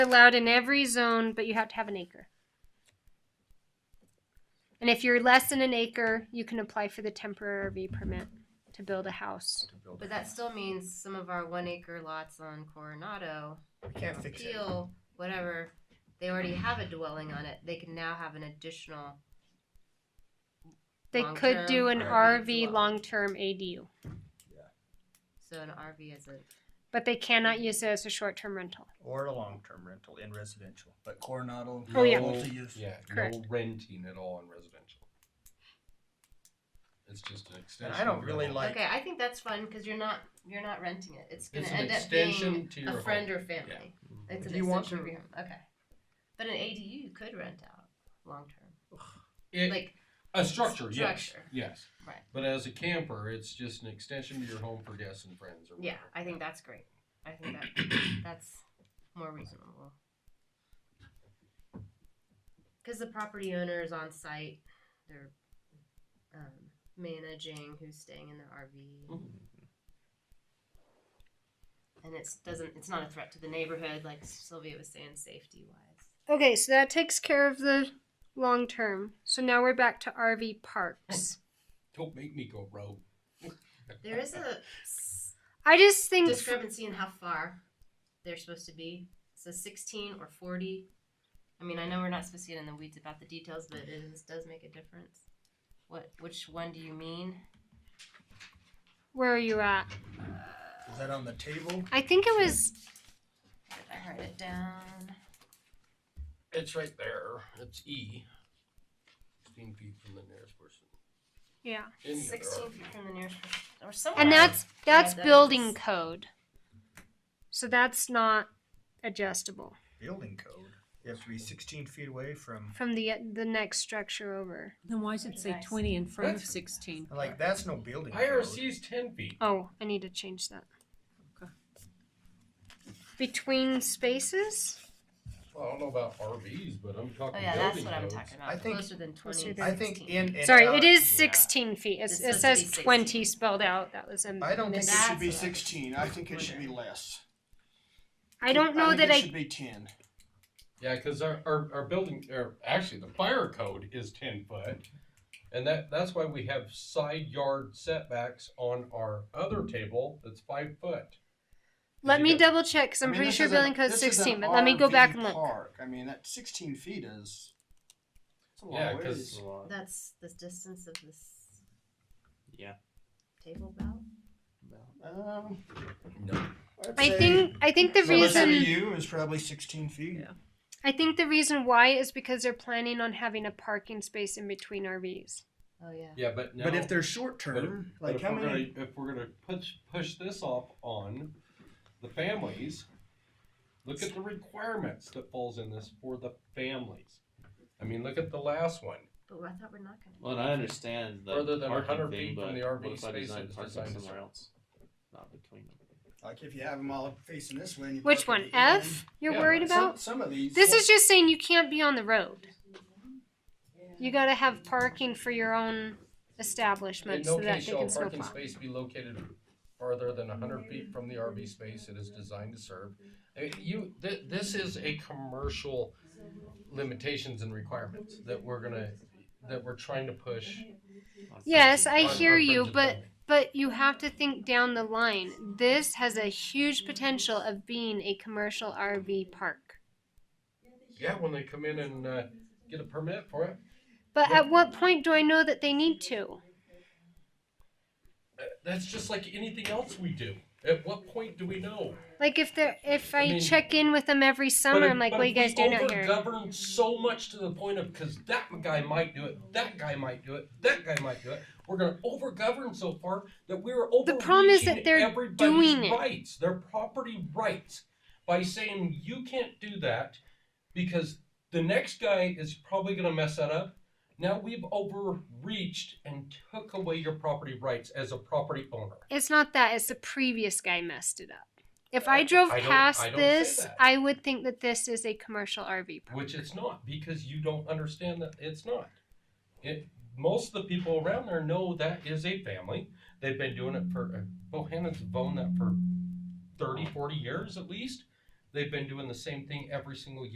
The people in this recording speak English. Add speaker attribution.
Speaker 1: allowed in every zone, but you have to have an acre. And if you're less than an acre, you can apply for the temporary permit to build a house.
Speaker 2: to build
Speaker 3: But
Speaker 2: it.
Speaker 3: that still means some of our one acre lots on Coronado,
Speaker 2: We can't fix it.
Speaker 3: Peel, whatever, they already have a dwelling on it. They can now have an additional.
Speaker 1: They could do an
Speaker 2: Long-term
Speaker 1: RV
Speaker 3: dwelling.
Speaker 1: long-term ADU,
Speaker 3: So an RV is a.
Speaker 1: but they cannot use it as a short-term rental.
Speaker 2: Or a long-term rental in residential, but Coronado.
Speaker 1: Oh, yeah.
Speaker 2: multi-use.
Speaker 4: Yeah,
Speaker 1: Correct.
Speaker 4: no renting at all in residential. It's just an extension.
Speaker 2: And I don't
Speaker 4: of your
Speaker 2: really
Speaker 4: home.
Speaker 2: like,
Speaker 3: okay, I think that's fun because you're not you're not renting it. It's gonna
Speaker 4: It's an
Speaker 3: end up
Speaker 4: extension
Speaker 3: being
Speaker 4: to
Speaker 3: a
Speaker 4: your
Speaker 3: friend
Speaker 4: home. Mm-hmm.
Speaker 3: or family. It's an
Speaker 2: Do you want
Speaker 3: extension of
Speaker 2: to-
Speaker 3: your home. Okay, but an ADU you could rent out long term,
Speaker 4: It-
Speaker 3: like
Speaker 4: a structure, yes,
Speaker 3: structure.
Speaker 4: yes.
Speaker 3: Right.
Speaker 4: But as a camper, it's just an extension to your home for guests and friends or
Speaker 3: yeah.
Speaker 4: whatever.
Speaker 3: I think that's great. I think that that's more reasonable because the property owner is on site. They're um, managing who's staying in their RV. and it's doesn't it's not a threat to the neighborhood like sylvia was saying safety wise
Speaker 1: Okay, so that takes care of the long-term. So now we're back to RV parks.
Speaker 4: Don't make me go rogue.
Speaker 3: there is a s-
Speaker 1: I just think
Speaker 3: discrepancy in how far they're supposed to be so 16 or 40 i mean i know we're not supposed to get in the weeds about the details but it is, does make a difference what which one do you mean
Speaker 1: where are you at?
Speaker 2: is that on the table?
Speaker 1: I think it was
Speaker 3: Did i write it down
Speaker 4: It's right there. It's E. Sixteen feet from the nearest person.
Speaker 1: yeah.
Speaker 4: Any other
Speaker 3: 16
Speaker 4: RV.
Speaker 3: feet from the nearest or somewhere
Speaker 1: And that's that's
Speaker 3: that
Speaker 1: building
Speaker 3: is-
Speaker 1: code. So that's not adjustable
Speaker 2: Building code, you have to be sixteen feet away from,
Speaker 1: from the the next structure over.
Speaker 5: Then why does it say
Speaker 3: Nice.
Speaker 5: twenty in front of
Speaker 4: That's-
Speaker 5: sixteen?
Speaker 2: like, that's no building code.
Speaker 4: IRC is ten feet.
Speaker 1: Oh, I need to change that.
Speaker 5: Okay.
Speaker 1: Between spaces?
Speaker 4: Well, I don't know about RVs, but I'm
Speaker 3: oh
Speaker 4: talking
Speaker 3: yeah that's
Speaker 4: building
Speaker 3: what i'm
Speaker 4: codes.
Speaker 3: talking about
Speaker 2: I think-
Speaker 3: closer than 20
Speaker 1: Closer than-
Speaker 2: I think
Speaker 3: 16.
Speaker 2: in and uh,
Speaker 1: Sorry,
Speaker 2: out-
Speaker 1: it is
Speaker 4: yeah.
Speaker 1: 16 feet. It's,
Speaker 3: It's
Speaker 1: it
Speaker 3: supposed to be
Speaker 1: says
Speaker 3: 16.
Speaker 1: 20 spelled out. That was a
Speaker 2: I don't think it
Speaker 1: mis-
Speaker 3: That's
Speaker 2: should be
Speaker 3: what I was
Speaker 2: sixteen, I think it should be less.
Speaker 1: I don't know that
Speaker 2: think
Speaker 1: I
Speaker 2: It should be ten.
Speaker 4: Yeah, because our, our, our building, or actually, the fire code is ten foot. And that, that's why we have side yard setbacks on our other table that's five foot.
Speaker 1: Let
Speaker 4: You
Speaker 1: me
Speaker 4: got-
Speaker 1: double check because I'm
Speaker 2: I mean,
Speaker 1: pretty
Speaker 2: this
Speaker 1: sure
Speaker 2: is an-
Speaker 1: building code's
Speaker 2: this is an
Speaker 1: 16, but let me go back
Speaker 2: RV
Speaker 1: and look.
Speaker 2: Park, I mean, that sixteen feet is. it's a long
Speaker 4: Yeah, 'cause-
Speaker 2: ways.
Speaker 3: That's the distance of this.
Speaker 6: Yeah.
Speaker 3: Table belt.
Speaker 2: Um,
Speaker 4: No.
Speaker 2: I'd
Speaker 1: I
Speaker 2: say-
Speaker 1: think I think the
Speaker 2: So listen to
Speaker 1: reason
Speaker 2: you is probably sixteen feet.
Speaker 5: Yeah.
Speaker 1: I think the reason why is because they're planning on having a parking space in between RVs.
Speaker 3: Oh yeah.
Speaker 4: Yeah, but now.
Speaker 2: But if they're short
Speaker 4: but if-
Speaker 2: term,
Speaker 4: but
Speaker 2: like
Speaker 4: if
Speaker 2: how
Speaker 4: we're
Speaker 2: many?
Speaker 4: gonna- If we're gonna push, push this off on the families, look at the requirements that falls in this for the families. I mean, look at the last one.
Speaker 3: But I thought we're not gonna.
Speaker 6: Well, and I understand the
Speaker 4: Further than
Speaker 6: parking
Speaker 4: 100
Speaker 6: thing,
Speaker 4: feet from
Speaker 6: but
Speaker 4: the
Speaker 6: what
Speaker 4: RV
Speaker 6: if I
Speaker 4: space
Speaker 6: design
Speaker 4: that's
Speaker 6: parking
Speaker 4: designed
Speaker 6: somewhere
Speaker 4: so-
Speaker 6: else? Not between them.
Speaker 2: Like if you have them all facing this way. and you
Speaker 1: Which
Speaker 2: park
Speaker 1: one?
Speaker 2: at the end,
Speaker 1: F? You're
Speaker 4: Yeah,
Speaker 1: worried
Speaker 2: some-
Speaker 1: about?
Speaker 2: Some of these.
Speaker 1: This is just saying you can't be on the road. You gotta have parking for your own
Speaker 4: In
Speaker 1: establishment
Speaker 4: no
Speaker 1: so that
Speaker 4: case
Speaker 1: they
Speaker 4: shall
Speaker 1: can
Speaker 4: a parking
Speaker 1: snowplow.
Speaker 4: space be located farther than hundred feet from the RV space it is designed to serve. Uh, You, thi- this is a commercial limitations and requirements that we're gonna, that we're trying to push.
Speaker 6: Not
Speaker 1: Yes,
Speaker 6: sexy.
Speaker 1: I
Speaker 4: on-
Speaker 1: hear
Speaker 4: on
Speaker 1: you,
Speaker 4: Bridget
Speaker 1: but
Speaker 4: Building.
Speaker 1: but you have to think down the line. This has a huge potential of being a commercial RV park.
Speaker 4: Yeah, when they come in and, uh, get a permit for it,
Speaker 1: But at what point do I know that they need to?
Speaker 4: uh, that's just like anything else we do. At what point do we know?
Speaker 1: Like if they're if
Speaker 4: I
Speaker 1: I
Speaker 4: mean-
Speaker 1: check in with them every
Speaker 4: But
Speaker 1: summer,
Speaker 4: if-
Speaker 1: I'm like,
Speaker 4: but
Speaker 1: what are you
Speaker 4: if we
Speaker 1: guys doing out here?
Speaker 4: overgovern so much to the point of because that guy might do it, that guy might do it, that guy might do it. We're gonna overgovern so far that we're over.
Speaker 1: The problem is that they're doing it.
Speaker 4: rights, their property rights, by saying you can't do that because the next guy is probably gonna mess that up. Now we've overreached and took away your property rights as a property owner.
Speaker 1: It's not that. It's the previous guy messed it up. If I drove
Speaker 4: I don't-
Speaker 1: past
Speaker 4: I don't say
Speaker 1: this,
Speaker 4: that.
Speaker 1: I would think that this is a commercial RV park.
Speaker 4: Which it's not because you don't understand that it's not. It most of the people around there know that is a family. They've uh, oh, been doing it for Bohannon's owned that for 30, 40 years at least. They've been doing the same thing every single